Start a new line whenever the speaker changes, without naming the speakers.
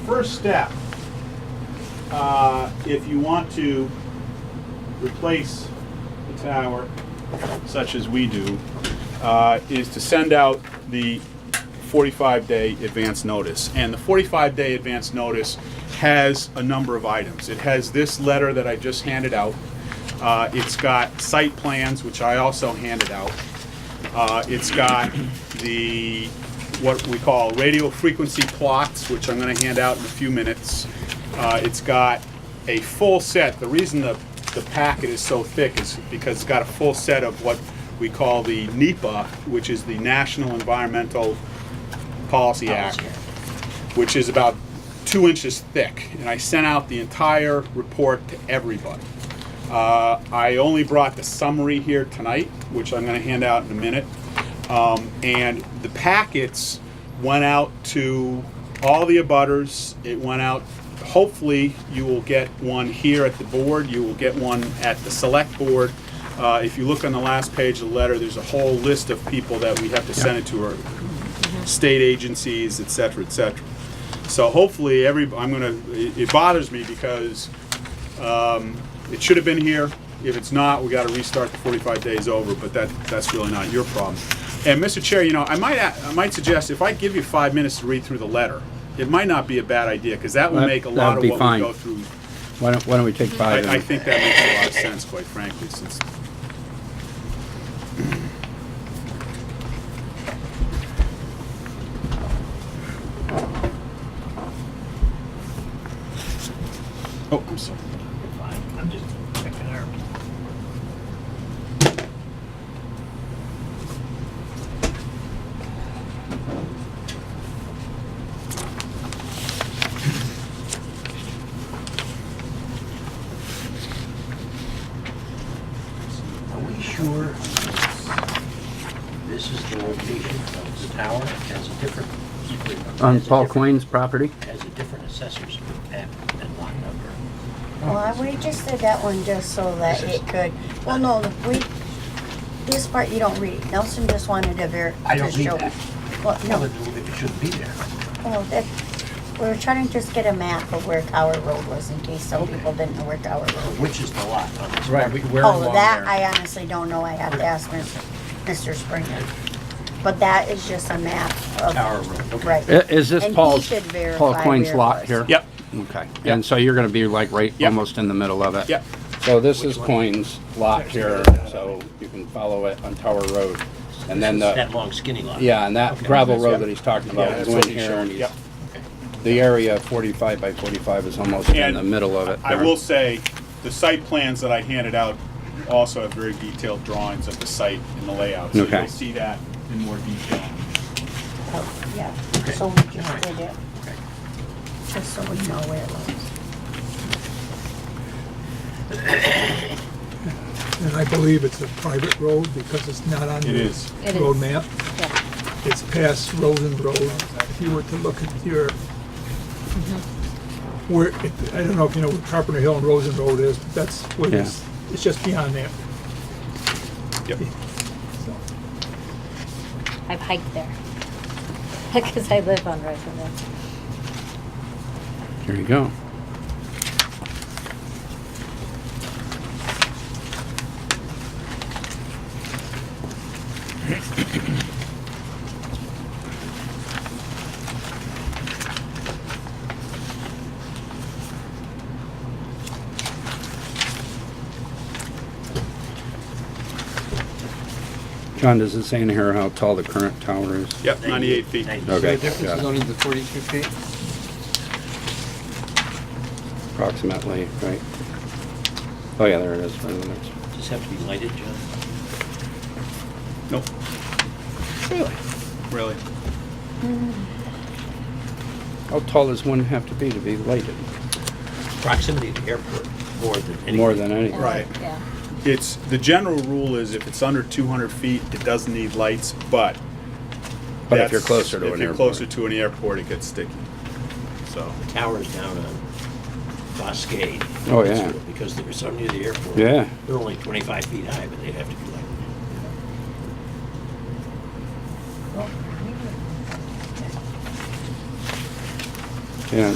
first step, uh, if you want to replace the tower, such as we do, uh, is to send out the 45-day advance notice. And the 45-day advance notice has a number of items. It has this letter that I just handed out. Uh, It's got site plans, which I also handed out. Uh, It's got the, what we call radio frequency plots, which I'm going to hand out in a few minutes. Uh, It's got a full set, the reason the, the packet is so thick is because it's got a full set of what we call the NEPA, which is the National Environmental Policy Act, which is about two inches thick. And I sent out the entire report to everybody. Uh, I only brought the summary here tonight, which I'm going to hand out in a minute. Um, and the packets went out to all the abutters. It went out, hopefully, you will get one here at the board, you will get one at the select board. Uh, if you look on the last page of the letter, there's a whole list of people that we have to send it to, or state agencies, et cetera, et cetera. So hopefully, every, I'm gonna, it it bothers me because um, it should have been here. If it's not, we gotta restart the forty-five days over, but that, that's really not your problem. And Mr. Chair, you know, I might, a- I might suggest if I give you five minutes to read through the letter, it might not be a bad idea, because that will
That-
make a lot
that'd
of
be
what we
fine.
go through.
Why don't, why don't we take five?
I, I
and-
think that makes a lot of sense, quite frankly, since, oh, I'm sorry.
Fine, I'm just checking our. Are we sure this is the location of the tower? It Has a different.
On
has a
Paul
different-
Queen's property?
Has a different assessor's map and lot number.
Well, we just did that one just so that it could, well, no, look, we, this part you don't read. Nelson just wanted to ver,
I
to
don't need
show.
that.
Well,
No,
no,
it it shouldn't be there.
well, that, we were trying to just get a map of where Tower Road was in case some
Okay.
people didn't know where Tower Road.
Which is the lot on this?
Right, we- we're
Oh,
along
that
there.
I honestly don't know. I have to ask Mr. Mr. Springer. But that is just a map of.
Tower Road, okay.
Right.
I- Is this
And he
Paul's,
should verify
Paul Queen's
where it
lot
was.
here?
Yep,
Okay,
Yep.
and so you're gonna be like right,
Yep.
almost in the middle of it?
yep.
So this is Queen's lot here, so you can follow it on Tower Road. And then the,
That long skinny lot.
yeah, and that
Okay.
gravel road that he's talking
Yeah,
about is
that's what
in
he's
here.
showing,
and
yep.
The area forty-five by forty-five is almost in
And
the middle of it.
I
there.
will say, the site plans that I handed out also have very detailed drawings of the site and the layout. So
Okay.
you'll see that in more detail.
Oh, Yeah,
Okay.
so we
All
just
right.
did it,
Okay.
just so we know where it was.
And I believe it's a private road because it's not on
It is.
the
It
road
is.
map. It's past Rosen Road. If you were to look at your, where, it- I don't know if you know where Carpenter Hill and Rosen Road is, but that's where
Yeah.
this, it's just beyond that.
Yep.
So,
I've hiked there. Because I live on Roosevelt.
Here you go. John, does it say in here how tall the current tower is?
Yep, 98 feet.
Okay.
The difference is
got it.
only the 42 feet.
approximately, right? Oh, yeah, there it is. right in the next-
Does this have to be lighted, John?
Nope. Really? Really?
How tall does one have to be to be lighted?
Proximity to the airport, more than anything.
More than anything.
Right.
Yeah.
It's, the general rule is if it's under 200 feet, it doesn't need lights, but.
But if you're
that's-
closer to an
If you're
airport.
closer to an airport, it gets sticky. So,
Towers down on Boscade.
Oh, yeah.
Because there's some near the airport.
Yeah.
They're only 25 feet high, but they have to be lighted.
Yeah,